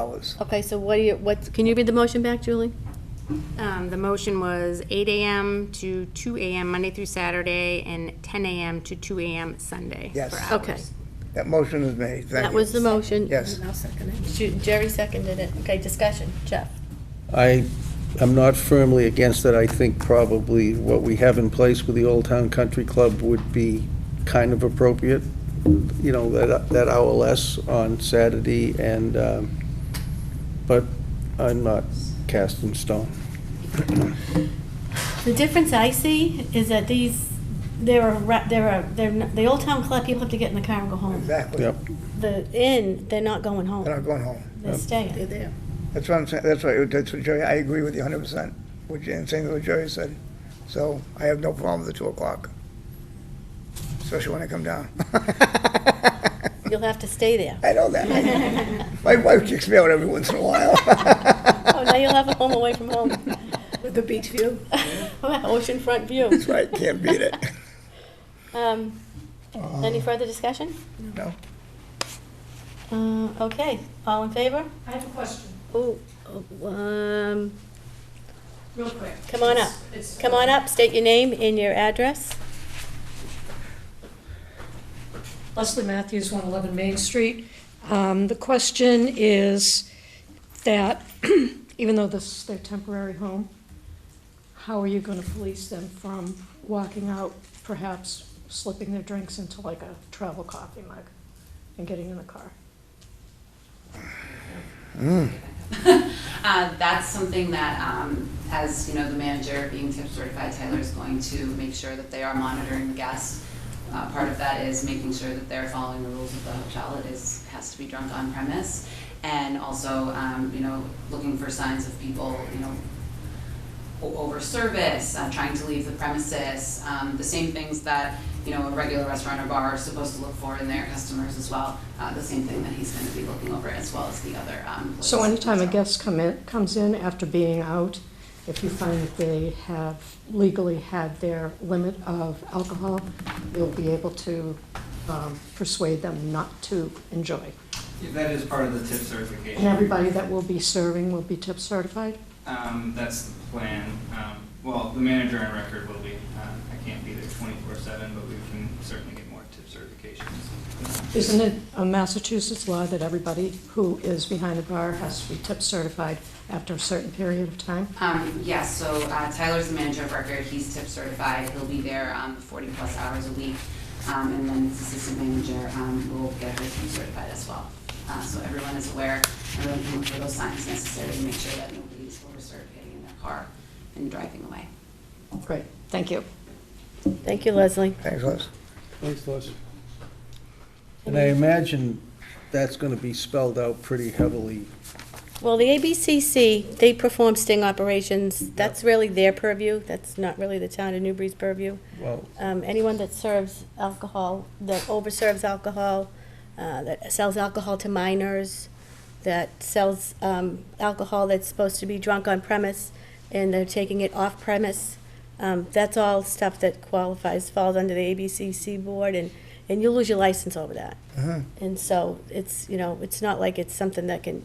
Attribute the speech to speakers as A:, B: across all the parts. A: dollars.
B: Okay, so what do you, what's, can you read the motion back, Julie?
C: Um, The motion was 8 AM to 2 AM Monday through Saturday and 10 AM to 2 AM Sunday.
A: Yes.
C: for hours.
B: Okay,
A: That motion is made, thank you.
B: that was the motion.
A: Yes.
D: I'll second it.
B: Shoot, Jerry seconded it. Okay, discussion, Jeff.
E: I am not firmly against it. I think probably what we have in place with the Old Town Country Club would be kind of appropriate, you know, that, that hour less on Saturday and, um, but I'm not cast in stone.
F: The difference I see is that these, there are, ra- there are, they're, n- the Old Town Club people have to get in the car and go home.
A: Exactly.
E: Yep.
F: The inn, they're not going
A: They're not
F: home,
A: going home.
F: they're staying.
D: They're there.
A: That's what I'm saying, that's what, that's what Jerry, I agree with you hundred percent, what Jan- saying what Jerry said. So I have no problem with the two o'clock. Especially when I come down.
B: You'll have to stay there.
A: I know that. My wife kicks me out every once in a while.
B: Oh, now you'll have a home away from home.
D: With the beach view.
B: Oceanfront view.
A: That's right, can't beat it.
B: Um,
A: Uh,
B: Any further discussion?
A: No.
B: Uh, Okay, all in favor?
G: I have a question,
B: Oh, um,
G: real quick.
B: Come on up.
G: It's- it's-
B: come on up, state your name and your address.
G: Leslie Matthews, 111 Main Street. Um, The question is that, even though this is their temporary home, how are you going to police them from walking out, perhaps slipping their drinks into like a travel coffee mug and getting in the car?
H: Uh, That's something that, um, as, you know, the manager being tip certified, Tyler is going to make sure that they are monitoring the guests. Uh, Part of that is making sure that they're following the rules of the hotel. It is, has to be drunk on premise. And also, um, you know, looking for signs of people, you know, o- over service, uh, trying to leave the premises, um, the same things that, you know, a regular restaurant or bar are supposed to look for in their customers as well. Uh, The same thing that he's going to be looking over as well as the other. um,
G: So
H: employees.
G: anytime a
H: So-
G: guest come in, comes in after being out, if you find that they have legally had their limit of alcohol, you'll be able to um, persuade them not to enjoy.
I: Yeah, That is part of the tip certification.
G: And everybody that will be serving will be tip certified?
I: Um, that's the plan. Um, well, the manager on record will be. Um, I can't be there twenty-four seven, but we can certainly get more tip certifications.
G: Isn't it a Massachusetts law that everybody who is behind the bar has to be tip certified after a certain period of time?
H: Um, yes, so uh, Tyler's the manager of record, he's tip certified, he'll be there, um, forty plus hours a week. Um, and then his assistant manager, um, will get her tip certified as well. Uh, so everyone is aware, everyone can look for those signs necessary to make sure that nobody's over-served getting in their car and driving away.
G: Great, thank you.
B: Thank you, Leslie.
A: Thanks, Les.
E: Thanks, Les. And I imagine that's going to be spelled out pretty heavily.
B: Well, the ABCC, they perform sting operations. That's really their purview. That's not really the town of Newbury's purview.
E: Well,
B: Um, anyone that serves alcohol, that overserves alcohol, uh, that sells alcohol to minors, that sells, um, alcohol that's supposed to be drunk on premise and they're taking it off premise, um, that's all stuff that qualifies, falls under the ABCC board and, and you'll lose your license over that. And so it's, you know, it's not like it's something that can,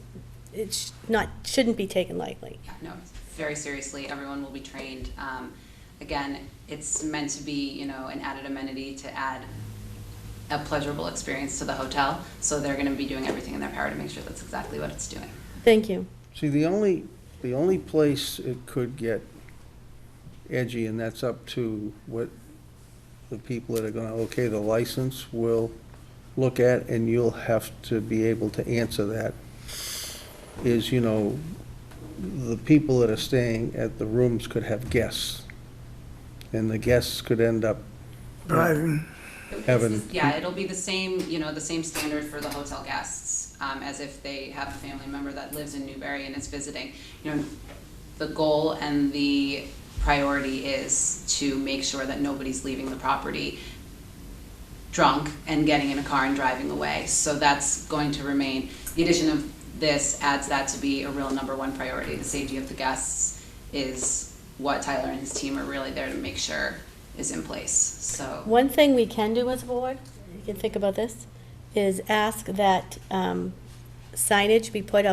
B: it's not, shouldn't be taken lightly.
H: Yeah, no, very seriously, everyone will be trained. Um, again, it's meant to be, you know, an added amenity to add a pleasurable experience to the hotel. So they're gonna be doing everything in their power to make sure that's exactly what it's doing.
B: Thank you.
E: See, the only, the only place it could get edgy, and that's up to what the people that are gonna okay the license will look at, and you'll have to be able to answer that, is, you know, the people that are staying at the rooms could have guests, and the guests could end up
A: Driving,
E: having
H: Yeah, it'll be the same, you know, the same standard for the hotel guests, um, as if they have a family member that lives in Newbury and is visiting. You know, the goal and the priority is to make sure that nobody's leaving the property drunk and getting in a car and driving away. So that's going to remain, the addition of this adds that to be a real number one priority. The safety of the guests is what Tyler and his team are really there to make sure is in place, so.
B: One thing we can do as a board, you can think about this, is ask that um, signage be put out.